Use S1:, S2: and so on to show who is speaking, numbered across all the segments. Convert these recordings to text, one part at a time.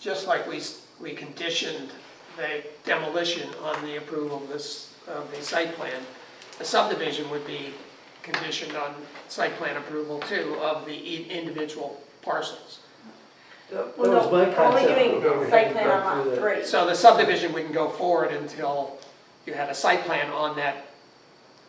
S1: just like we, s- we conditioned the demolition on the approval of this, of the site plan, the subdivision would be conditioned on site plan approval too of the i- individual parcels.
S2: That
S3: Well,
S2: was
S3: no,
S2: my
S3: we're only
S2: concept.
S3: doing site plan on lot three.
S1: So the subdivision wouldn't go forward until you had a site plan on that
S3: On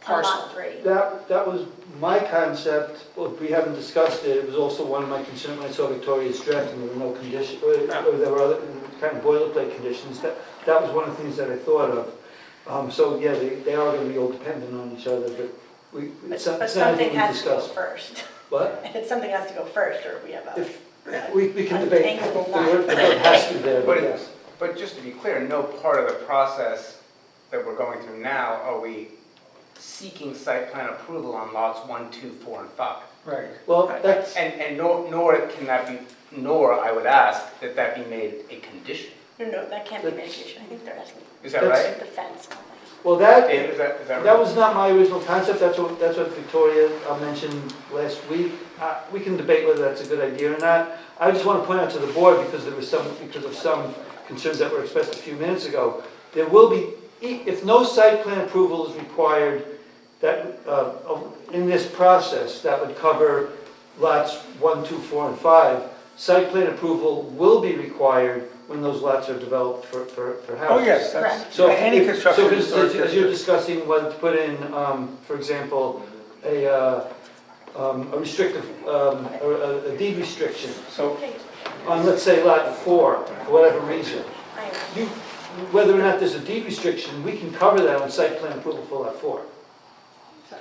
S1: parcel.
S3: lot three.
S2: That, that was my concept, Well, we haven't discussed it, it was also one of my concerns when I saw Victoria's draft, and there were no condition, or or there were other kind of boilerplate conditions, that, that was one of the things that I thought of. Um, so, yeah, they, they are gonna be all dependent on each other, but we,
S3: But
S2: it's not
S3: but
S2: it's not
S3: something
S2: anything we
S3: has to go
S2: discussed.
S3: first.
S2: But
S3: Something has to go first, or we have a,
S2: if, we, we can debate, the
S3: Untangle the
S2: word, the word has to be there, but
S4: But it-
S2: yes.
S4: But just to be clear, no part of the process that we're going through now are we seeking site plan approval on lots one, two, four, and 5.
S2: Right. Well, that's,
S4: And, and nor, nor can that be, nor I would ask that that be made a condition.
S3: no, no, that can't be mitigation. I think they're asking
S4: Is that
S2: That's-
S4: right?
S3: the fence only.
S2: well, that,
S4: Dave, is that, is that
S2: That
S4: right?
S2: was not my original concept, that's what, that's what Victoria uh, mentioned last week. Uh, We can debate whether that's a good idea or not. I just want to point out to the board, because there was some, because of some concerns that were expressed a few minutes ago, there will be, e- if no site plan approval is required, that, uh, of- in this process, that would cover lots one, two, four, and 5. Site plan approval will be required when those lots are developed for, for for
S4: Oh,
S1: Oh,
S2: houses.
S3: that's-
S2: So
S5: Yeah, any
S2: if-
S5: construction
S2: So as- as,
S5: historic
S2: as you're
S5: district.
S2: discussing whether to put in, um, for example, a, uh, um, a restrictive, um, a, a- a deed restriction
S5: So,
S3: Okay,
S2: on, let's say, lot four, for whatever reason.
S3: I am.
S2: You, whether or not there's a deed restriction, we can cover that on site plan approval for lot four.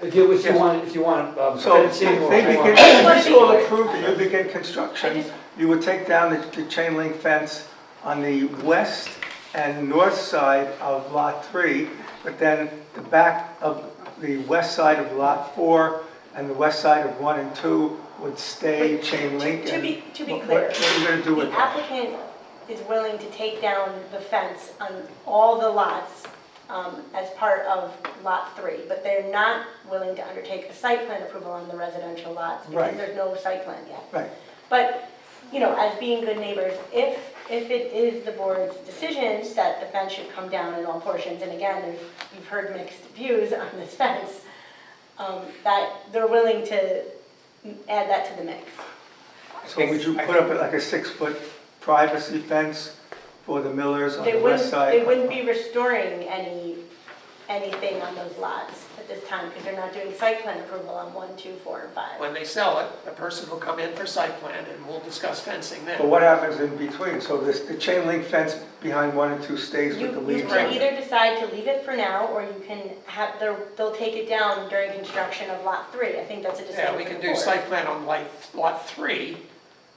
S2: If you, if you want, if you want, um,
S5: so if
S2: fencing or
S5: they
S2: if you
S5: begin,
S2: want.
S5: if it's all approved, and you begin
S3: I
S5: construction,
S3: just-
S5: you would take down the- the chain link fence on the west and north side of Lot 3, but then the back of the west side of Lot 4 and the west side of 1 and 2 would stay
S3: But
S5: chain link.
S3: to
S5: and
S3: be- to be
S5: what-
S3: clear,
S5: What what are you going to do with
S3: The
S5: that?
S3: applicant is willing to take down the fence on all the lots um, as part of Lot 3, but they're not willing to undertake a site plan approval on the residential lots because
S5: Right.
S3: there's no site plan yet.
S5: Right.
S3: But, you know, as being good neighbors, if, if it is the board's decision that the fence should come down in all portions, and again, there's- you've heard mixed views on this fence, um, that they're willing to add that to the mix.
S5: So would you put up like a six-foot privacy fence for the millers on
S3: They
S5: the west
S3: wouldn't,
S5: side?
S3: they wouldn't be restoring any, anything on those lots at this time, because they're not doing site plan approval on one, two, four, and five.
S1: When they sell it, the person will come in for site plan and we'll discuss fencing then.
S5: But what happens in between? So this, the chain link fence behind one and two stays
S3: You,
S5: with the
S3: you
S5: leaves on
S3: can
S5: it?
S3: either decide to leave it for now, or you can have, they'll, they'll take it down during construction of lot three, I think that's a
S1: Yeah,
S3: decision
S1: we
S3: for
S1: can
S3: the
S1: do
S3: board.
S1: site plan on lot, lot three,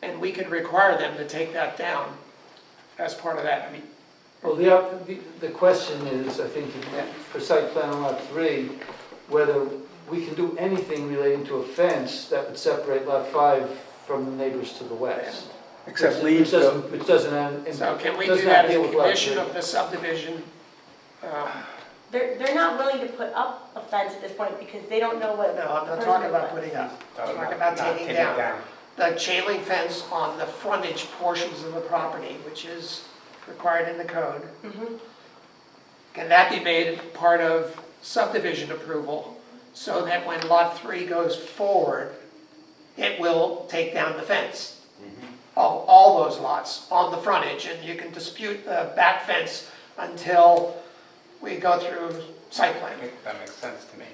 S1: and we could require them to take that down as part of that. I mean,
S2: Well, the, op- the- the question is, I think, for site plan on lot three, whether we can do anything relating to a fence that would separate lot five from the neighbors to the west.
S5: Except
S2: Which- Which
S5: leaves them.
S2: doesn't, which doesn't, end- it
S1: So can we
S2: does
S1: do
S2: not
S1: that as
S2: deal
S1: a
S2: with lot
S1: condition
S2: three.
S1: of the subdivision? Um,
S3: They're, they're not willing to put up a fence at this point, because they don't know what.
S1: No, I'm not talking
S3: the person
S1: about
S3: wants.
S1: putting up,
S4: Uh,
S1: I'm
S4: not-
S1: talking about
S4: not
S1: taking
S4: take it
S1: down. The chain link fence on the frontage portions of the property, which is required in the code.
S3: Mhm.
S1: Can that be made part of subdivision approval so that when lot three goes forward, it will take down the fence of all those lots on the frontage? And you can dispute the back fence until we go through site plan.
S4: That makes sense to me.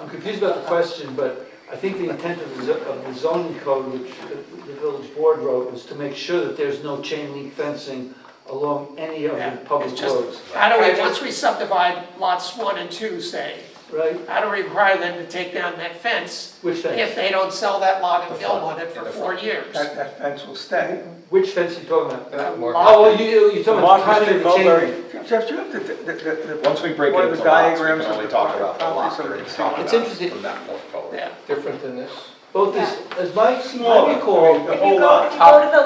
S2: I'm confused about the question, but I think the intent of the zo- of the zoning code, which the- the village board wrote, was to make sure that there's no chain link fencing along any of
S1: Yeah,
S2: the public
S1: it's just-
S2: roads,
S1: How do we, once we subdivide lots one and two, say,
S2: right?
S1: how do we require them to take down that fence
S2: Which fence?
S1: if they don't sell that lot and
S4: The
S1: build on
S4: front,
S1: it
S4: yeah,
S1: for
S4: the
S1: four years?
S5: That, that fence will stay.
S2: Which fence are you talking about?
S4: That would work.
S2: Oh, well, you, you're talking about the timing
S5: Martha Street,
S2: of the chain
S5: Mulberry.
S2: link.
S5: Jeff, do you have the, the, the- the.
S6: Once we break
S5: one
S6: it
S5: of the
S6: into lots, we can
S5: diagrams of
S6: only
S5: the
S6: talk about the
S5: property
S6: lot
S5: so we
S6: that
S5: can
S6: we
S5: see
S6: talk
S5: what-
S2: It's
S6: about
S2: interesting.
S6: from that point forward.
S1: Yeah,
S6: Different than this?
S2: Both is, as my,
S5: Smaller.
S2: I recall,
S5: The
S3: If
S5: whole
S3: you go,
S5: lot.
S3: if you go to the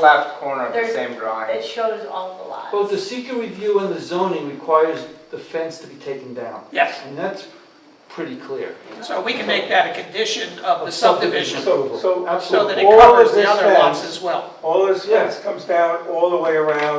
S3: left,
S4: left corner of the
S3: There's-
S4: same drawing.
S3: it shows all the lots.
S2: both the seeker review and the zoning requires the fence to be taken down.
S1: yes,
S2: And that's pretty clear.
S1: So we can make that a condition of the
S2: Of
S1: subdivision, so
S2: approval.
S5: So-
S2: Absolutely.
S1: that it
S5: all of
S1: covers the
S5: this
S1: other lots
S5: fence-
S1: as well.
S5: All this
S2: Yeah.
S5: fence comes down all the way around